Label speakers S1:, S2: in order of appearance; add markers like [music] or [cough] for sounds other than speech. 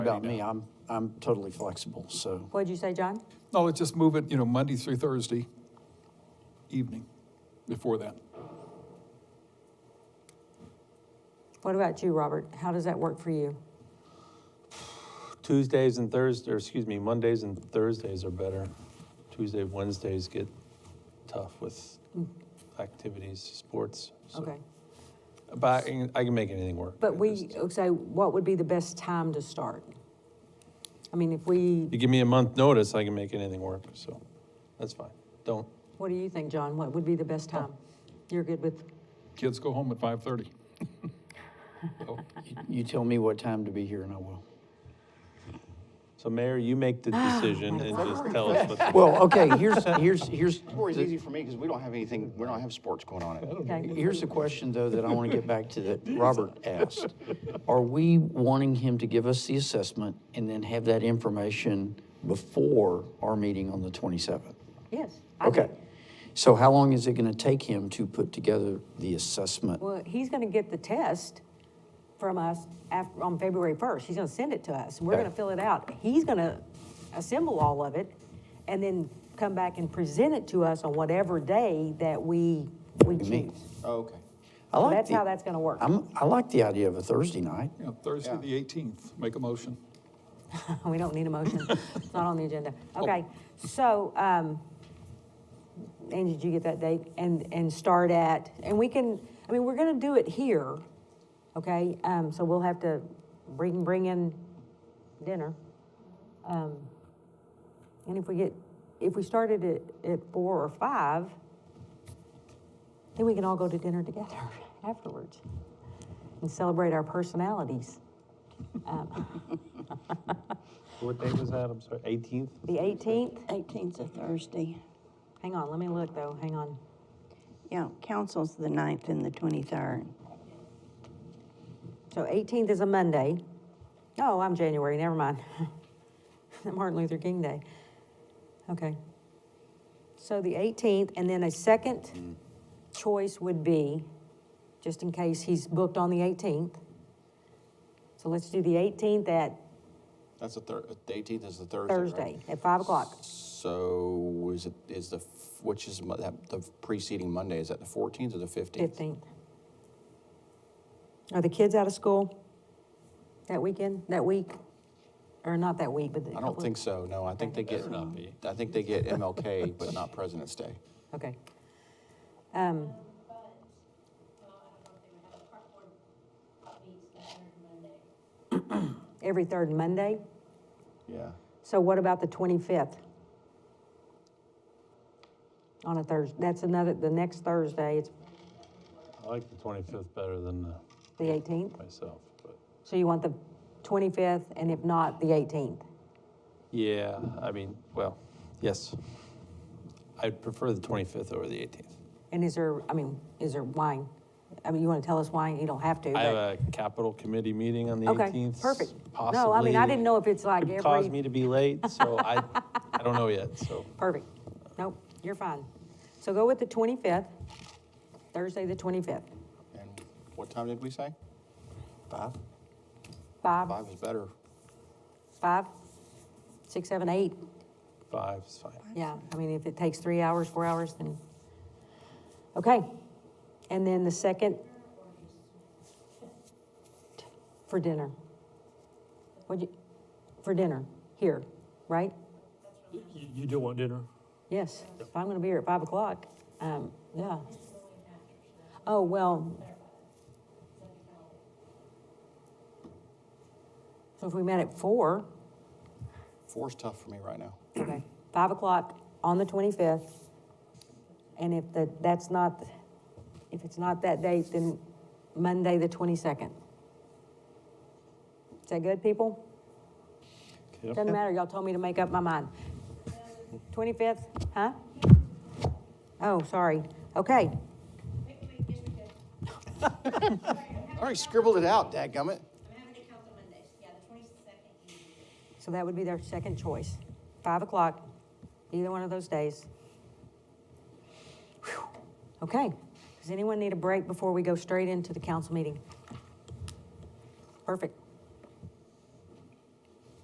S1: about me, I'm, I'm totally flexible,
S2: [laughs]
S1: so.
S2: What'd you say, John?
S3: No, let's just move it, you know, Monday through Thursday evening before that.
S2: What about you, Robert? How does that work for you?
S4: Tuesdays and Thursdays, or excuse me, Mondays and Thursdays are better. Tuesday, Wednesdays get tough with activities, sports. so-
S2: Okay.
S4: But I can, I can make anything work.
S2: But
S4: I
S2: we,
S4: just-
S2: so what would be the best time to start? I mean, if we,
S4: You give me a month notice, I can make anything work, so that's fine. Don't,
S2: what do you think, John? What would be the best time? You're good with,
S3: Kids go home at 5:30.
S1: You tell me what time to be here and I will.
S4: so Mayor, you make the
S2: Ah,
S4: decision and just tell us what. the-
S2: [laughs]
S1: Well, okay, [laughs] here's, here's, here's,
S5: Or is easy for me because we don't have anything, we don't have sports
S1: [laughs]
S5: going on. at-
S2: okay,
S1: here's a question though that I want to get back to
S5: [laughs]
S1: that Robert asked. Are we wanting him to give us the assessment and then have that information before our meeting on the 27th?
S2: yes. I
S1: Okay.
S2: think-
S1: So how long is it going to take him to put together the assessment?
S2: Well, he's going to get the test from us after, on February 1st. He's going to send it to us. We're
S1: Okay.
S2: going to fill it out. He's going to assemble all of it and then come back and present it to us on whatever day that we, we
S1: meet.
S2: choose.
S5: Oh, okay.
S1: I
S2: So
S1: like
S2: that's
S1: the-
S2: how that's going to work.
S1: I'm, I like the idea of a Thursday night.
S3: Yeah, Thursday,
S5: Yeah.
S3: the 18th, make a motion.
S2: Oh, We don't need a motion. It's not on the agenda. Okay, so, um, and did you get that date? And, and start at, and we can, I mean, we're gonna do it here, okay? Um, so we'll have to bring, bring in dinner. Um, And if we get, if we started at, at four or five, then we can all go to dinner together [laughs] afterwards and celebrate our personalities.
S4: What day was that? I'm sorry, 18th?
S2: The eighteenth,
S6: 18th's a Thursday.
S2: Hang on, let me look though, hang on.
S6: Yeah, council's the 9th and the 23rd.
S2: So 18th is a Monday. Oh, I'm January, never mind. [laughs] Martin Luther King Day. Okay. So the 18th, and then a second choice would be, just in case he's booked on the 18th. So let's do the 18th at
S5: That's the third, the eighteenth is the Thursday, right?
S2: Thursday, at 5 o'clock.
S5: So is it, is the, f- which is mo- that, the preceding Monday, is that the fourteenth or the fifteenth?
S2: 15th. Are the kids out of school that weekend, that week? Or not that week, but the
S5: I don't think so, no, I think they get, I think they get MLK, but not President's Day.
S2: Okay. Um, Every third Monday?
S5: Yeah.
S2: So what about the 25th? On a Thursday, that's another, the next Thursday, it's
S4: I like the 25th better than uh,
S2: the 18th.
S4: myself, but.
S2: So you want the 25th, and if not, the 18th?
S4: Yeah, I mean, well, yes. I'd prefer the 25th over the 18th.
S2: And is there, I mean, is there wine? I mean, you want to tell us why? You don't have to,
S4: I have
S2: but,
S4: a capital committee meeting on the
S2: okay,
S4: 18th.
S2: perfect. No, I mean, I
S4: possibly.
S2: didn't know if it's like
S4: Could cause
S2: every
S4: me to be late, so I, I don't know yet, so.
S2: Perfect. Nope, you're fine. So go with the 25th, Thursday, the 25th.
S5: And what time did we say? Five?
S2: Five,
S5: Five is better.
S2: five, six, seven, eight.
S4: Five is fine.
S2: Yeah, I mean, if it takes three hours, four hours, then, okay. And then the second, for dinner. What'd you, for dinner, here, right?
S7: You, you do want dinner?
S2: Yes, if I'm gonna be here at five o'clock, um, yeah. Oh, well. So if we met at four,
S5: Four's tough for me right now.
S2: okay, five o'clock on the twenty-fifth, and if the, that's not, if it's not that date, then Monday, the twenty-second. Is that good, people? Doesn't matter, y'all told me to make up my mind. 25th, huh? Oh, sorry. Okay,
S5: I already scribbled it out, dadgummit.
S8: I'm having to count the Mondays, yeah, the twenty-second,
S2: so that would be their second choice. 5 o'clock, either one of those days. Whew. Okay, does anyone need a break before we go straight into the council meeting? Perfect.